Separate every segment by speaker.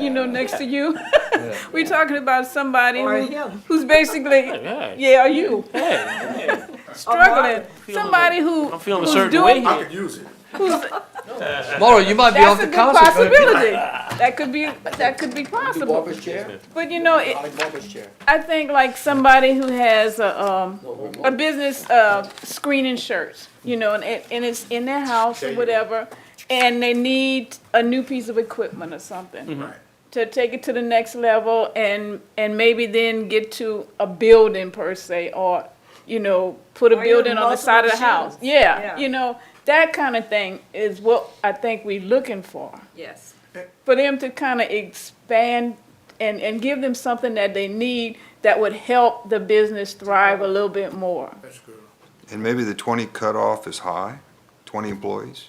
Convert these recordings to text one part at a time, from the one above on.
Speaker 1: you know, next to you.
Speaker 2: Yeah.
Speaker 1: We're talking about somebody
Speaker 3: Or
Speaker 1: who-
Speaker 3: him.
Speaker 1: who's basically,
Speaker 4: Yeah.
Speaker 1: yeah, or you,
Speaker 4: Hey,
Speaker 1: struggling.
Speaker 4: feeling
Speaker 1: Somebody who,
Speaker 4: I'm feeling a
Speaker 1: who's
Speaker 4: certain way
Speaker 1: doing,
Speaker 4: here.
Speaker 5: I could use it.
Speaker 1: who's,
Speaker 2: Laura, you might be off
Speaker 1: that's a
Speaker 2: the
Speaker 1: good
Speaker 2: concert. but-
Speaker 1: possibility. That could be, that could be
Speaker 6: The
Speaker 1: possible.
Speaker 6: barber's chair?
Speaker 1: But you know, it,
Speaker 6: I like barber's chair.
Speaker 1: I think like somebody who has a, um,
Speaker 6: No,
Speaker 1: a business uh, screening shirts, you know, and, it, and it's in their house
Speaker 5: There
Speaker 1: or
Speaker 5: you go.
Speaker 1: whatever, and they need a new piece of equipment or something
Speaker 2: Mm-hmm.
Speaker 5: Right.
Speaker 1: to take it to the next level, and and maybe then get to a building per se, or you know, put a
Speaker 3: Or even
Speaker 1: building on the side of the
Speaker 3: multiple
Speaker 1: house.
Speaker 3: shelves.
Speaker 1: Yeah,
Speaker 3: Yeah.
Speaker 1: you know, that kind of thing is what I think we're looking for
Speaker 3: Yes.
Speaker 1: for them to kind of expand and, and give them something that they need that would help the business thrive a little bit more.
Speaker 5: That's good.
Speaker 7: And maybe the twenty cutoff is high, twenty employees?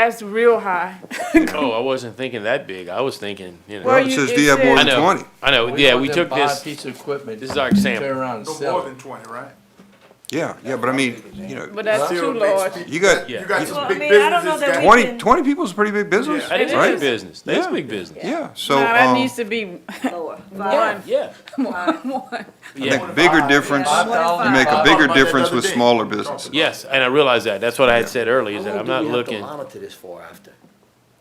Speaker 1: That's real high.
Speaker 4: Oh, I wasn't thinking that big. I was thinking, you know.
Speaker 1: Well,
Speaker 7: Well, it
Speaker 1: you-
Speaker 7: says
Speaker 1: it
Speaker 7: do you have more
Speaker 4: I
Speaker 7: than
Speaker 4: know.
Speaker 7: twenty?
Speaker 4: I know.
Speaker 2: We
Speaker 4: yeah,
Speaker 2: want
Speaker 4: we
Speaker 2: them
Speaker 4: took
Speaker 2: to buy a
Speaker 4: this.
Speaker 2: Piece of equipment.
Speaker 4: this is our
Speaker 2: and
Speaker 4: example.
Speaker 2: Turn around and
Speaker 5: No more
Speaker 2: sell it.
Speaker 5: than twenty, right?
Speaker 7: Yeah, yeah, but I mean, you know,
Speaker 1: But that's
Speaker 5: Still
Speaker 1: too
Speaker 5: big
Speaker 1: large.
Speaker 5: spe-
Speaker 7: you got
Speaker 4: Yeah.
Speaker 5: You got
Speaker 3: Well,
Speaker 5: some
Speaker 3: I
Speaker 5: big
Speaker 3: mean, I don't know
Speaker 5: businesses
Speaker 3: that
Speaker 5: that.
Speaker 3: we-
Speaker 7: twenty, twenty people is a pretty big business,
Speaker 5: Yeah.
Speaker 4: That is
Speaker 7: right?
Speaker 4: big business. That's
Speaker 7: Yeah.
Speaker 4: big business.
Speaker 7: Yeah, so,
Speaker 1: Now, that
Speaker 7: um,
Speaker 1: needs to be
Speaker 3: Lower.
Speaker 1: one,
Speaker 4: Yeah.
Speaker 1: one, one.
Speaker 7: I
Speaker 4: Yeah.
Speaker 7: think bigger difference,
Speaker 2: Five thousand
Speaker 7: you make a
Speaker 2: five-
Speaker 5: Talked
Speaker 7: bigger
Speaker 5: about that the
Speaker 7: difference
Speaker 5: other
Speaker 7: with
Speaker 5: day.
Speaker 7: smaller
Speaker 5: Talked about
Speaker 7: businesses.
Speaker 5: it.
Speaker 4: Yes, and I realize that. That's what I had said earlier. Is that
Speaker 6: How
Speaker 4: I'm
Speaker 6: long
Speaker 4: not
Speaker 6: do we have to
Speaker 4: looking.
Speaker 6: Monitor this for after?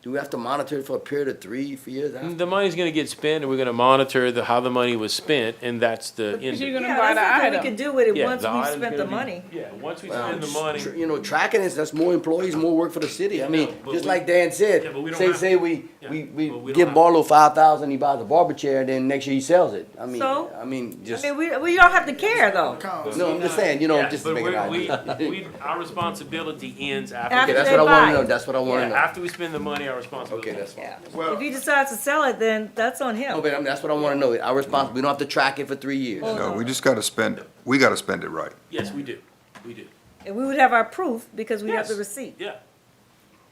Speaker 6: Do we have to monitor it for a period of three, four years after?
Speaker 4: The money's going to get spent, and we're going to monitor the how the money was spent, and that's the end. of
Speaker 1: you're
Speaker 4: it.
Speaker 1: gonna
Speaker 3: Yeah,
Speaker 1: buy
Speaker 3: that's
Speaker 1: the
Speaker 3: something we
Speaker 1: item.
Speaker 3: could do with it
Speaker 4: Yeah,
Speaker 3: once
Speaker 4: the
Speaker 3: we've
Speaker 4: item's
Speaker 3: spent
Speaker 4: gonna
Speaker 3: the
Speaker 4: be-
Speaker 3: money.
Speaker 4: Yeah, once we
Speaker 6: Well,
Speaker 4: spend the money.
Speaker 6: tr- You know, tracking is, that's more employees, more work for the city. I mean,
Speaker 4: but
Speaker 6: just
Speaker 4: we-
Speaker 6: like Dan said,
Speaker 4: Yeah, but we don't
Speaker 6: say,
Speaker 4: have-
Speaker 6: say we,
Speaker 4: Yeah,
Speaker 6: we,
Speaker 4: but we
Speaker 6: we
Speaker 4: don't
Speaker 6: give
Speaker 4: have-
Speaker 6: Barlow five thousand, he buys a barber chair, and then next year he sells it. I mean,
Speaker 3: So?
Speaker 6: I mean,
Speaker 3: I
Speaker 6: just,
Speaker 3: mean, we, we don't have to care though.
Speaker 5: Accounts.
Speaker 6: no, I'm just saying, you know,
Speaker 4: Yeah,
Speaker 6: just
Speaker 4: but
Speaker 6: to make
Speaker 4: we're-
Speaker 6: an
Speaker 4: we-
Speaker 6: idea.
Speaker 4: we- Our responsibility ends
Speaker 6: Okay,
Speaker 4: after.
Speaker 3: After
Speaker 6: that's
Speaker 3: they
Speaker 6: what I
Speaker 3: buy
Speaker 6: wanna know,
Speaker 3: it.
Speaker 6: that's what I
Speaker 4: Yeah,
Speaker 6: wanna know.
Speaker 4: after we spend the money, our responsibility.
Speaker 6: Okay, that's fine.
Speaker 3: Yeah.
Speaker 5: Well-
Speaker 3: If he decides to sell it, then that's on
Speaker 6: No,
Speaker 3: him.
Speaker 6: but I mean, that's what I wanna know. Our response, we don't have to track it for three years.
Speaker 7: No, we just gotta spend, we gotta spend it right.
Speaker 4: Yes, we do. We do.
Speaker 3: And we would have our proof because we have the
Speaker 4: Yes.
Speaker 3: receipt.
Speaker 4: Yeah.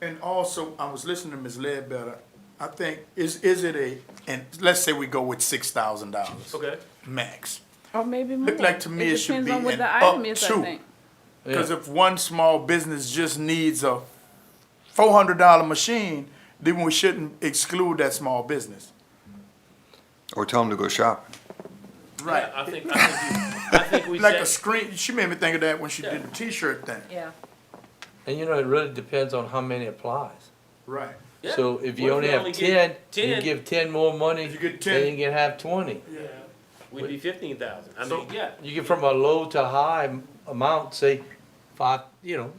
Speaker 5: And also, I was listening to Ms. Ledbetter, I think, is, is it a, and let's say we go with six thousand dollars.
Speaker 4: Okay.
Speaker 5: Max.
Speaker 1: or maybe more.
Speaker 5: Look like to me it should
Speaker 1: depends
Speaker 5: be
Speaker 1: on what
Speaker 5: an
Speaker 1: the
Speaker 5: up
Speaker 1: item is, I
Speaker 5: to.
Speaker 1: think.
Speaker 5: Cause if one small business just needs a four hundred dollar machine, then we shouldn't exclude that small business.
Speaker 7: Or tell them to go shopping.
Speaker 4: Right. I think, I think, you- I think we
Speaker 5: Like a
Speaker 4: set-
Speaker 5: screen, she made me think of that when she did the t-shirt thing.
Speaker 3: Yeah.
Speaker 2: And you know, it really depends on how many applies.
Speaker 5: Right.
Speaker 4: Yeah.
Speaker 2: So if
Speaker 4: What
Speaker 2: you only
Speaker 4: we
Speaker 2: have
Speaker 4: only
Speaker 2: ten,
Speaker 4: get
Speaker 2: you
Speaker 4: 10?
Speaker 2: give ten more money,
Speaker 5: You get
Speaker 2: then
Speaker 5: 10.
Speaker 2: you can have twenty.
Speaker 4: We'd be fifteen thousand. I
Speaker 5: So-
Speaker 4: mean, yeah.
Speaker 2: You get from a low to high m- amount, say, five, you know,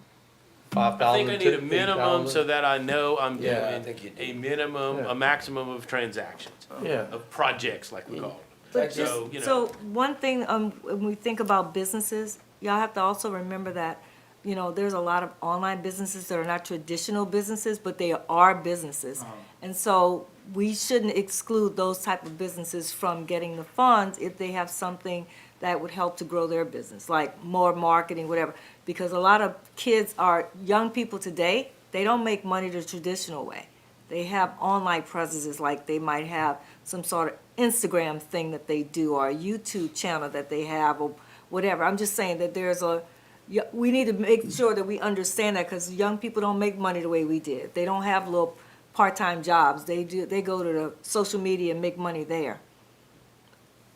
Speaker 2: five
Speaker 4: I
Speaker 2: thousand
Speaker 4: think I need a minimum so that I know I'm
Speaker 2: Yeah, I
Speaker 4: doing
Speaker 6: think you do.
Speaker 4: a minimum,
Speaker 2: Yeah.
Speaker 4: a maximum of transactions,
Speaker 2: Yeah.
Speaker 4: of projects, like
Speaker 2: Mm.
Speaker 4: we call them.
Speaker 3: But
Speaker 4: So,
Speaker 3: just,
Speaker 4: you know.
Speaker 3: so one thing, um, when we think about businesses, y'all have to also remember that, you know, there's a lot of online businesses that are not traditional businesses, but they are businesses.
Speaker 4: Uh-huh.
Speaker 3: And so we shouldn't exclude those type of businesses from getting the funds if they have something that would help to grow their business, like more marketing, whatever. Because a lot of kids are, young people today, they don't make money the traditional way they have online presences, like they might have some sort of Instagram thing that they do or a YouTube channel that they have or whatever. I'm just saying that there's a, yeah, we need to make sure that we understand that because young people don't make money the way we did. They don't have little part-time jobs. They do, they go to the social media and make money there.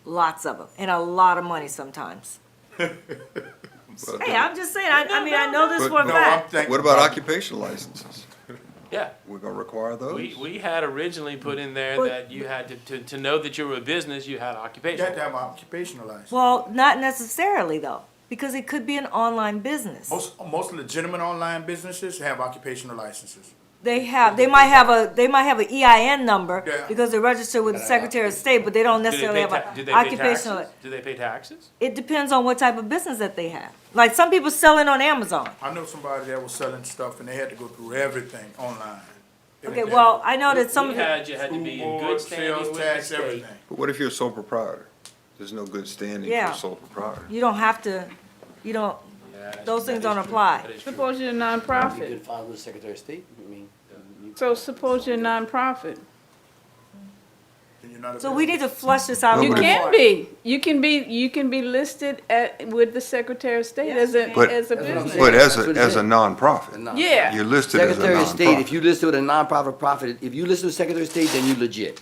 Speaker 3: Lots of them, and a lot of money sometimes. Hey, I'm just saying, I, I mean, I know this for a
Speaker 7: But-
Speaker 5: No, I'm
Speaker 3: fact.
Speaker 5: thinking.
Speaker 7: uh, What about occupational licenses?
Speaker 4: Yeah,
Speaker 7: We're gonna require
Speaker 4: we,
Speaker 7: those?
Speaker 4: we had originally put in there
Speaker 3: But-
Speaker 4: that you had to, to, to know that you were a business, you had
Speaker 5: You have to
Speaker 4: occupation.
Speaker 5: have an occupational license.
Speaker 3: Well, not necessarily though, because it could be an online business.
Speaker 5: Most, most legitimate online businesses have occupational licenses.
Speaker 3: They have, they might have a, they might have an EIN number
Speaker 5: Yeah.
Speaker 3: because they're registered with the Secretary of State, but they don't
Speaker 4: Do they
Speaker 3: necessarily
Speaker 4: pay
Speaker 3: have
Speaker 4: ta- do
Speaker 3: an
Speaker 4: they pay
Speaker 3: occupational.
Speaker 4: taxes? Do they pay taxes?
Speaker 3: It depends on what type of business that they have. Like some people selling on Amazon.
Speaker 5: I know somebody that was selling stuff and they had to go through everything online.
Speaker 3: Okay, well, I know that some
Speaker 4: We
Speaker 3: of the,
Speaker 4: had, you had to
Speaker 5: Food
Speaker 4: be in
Speaker 5: board,
Speaker 4: good standing
Speaker 5: sales
Speaker 4: with the
Speaker 5: tax,
Speaker 4: state.
Speaker 5: everything.
Speaker 7: But what if you're a sole proprietor? There's no good standing for
Speaker 3: Yeah.
Speaker 7: a sole proprietor.
Speaker 3: you don't have to, you don't,
Speaker 4: Yeah, that-
Speaker 3: Those things
Speaker 4: that
Speaker 3: don't
Speaker 4: is true.
Speaker 3: apply.
Speaker 4: That is true.
Speaker 1: Suppose you're a
Speaker 6: You
Speaker 1: nonprofit.
Speaker 6: could file with the Secretary of State, I mean. you-
Speaker 1: So suppose you're a nonprofit.
Speaker 5: And you're not a
Speaker 3: so we
Speaker 5: business.
Speaker 3: need to flush this out.
Speaker 1: You
Speaker 3: even
Speaker 1: can
Speaker 3: more.
Speaker 1: be. You can be. You can be listed at with the Secretary of State as a
Speaker 7: But-
Speaker 1: as a
Speaker 6: That's what I'm
Speaker 1: business.
Speaker 6: saying.
Speaker 7: But as
Speaker 6: That's
Speaker 7: a,
Speaker 6: what it
Speaker 7: as a
Speaker 6: is.
Speaker 7: nonprofit,
Speaker 6: No.
Speaker 1: Yeah.
Speaker 7: you're listed as a nonprofit.
Speaker 6: Secretary of State, if you listed with a nonprofit profit, if you listed with Secretary of State, then you legit.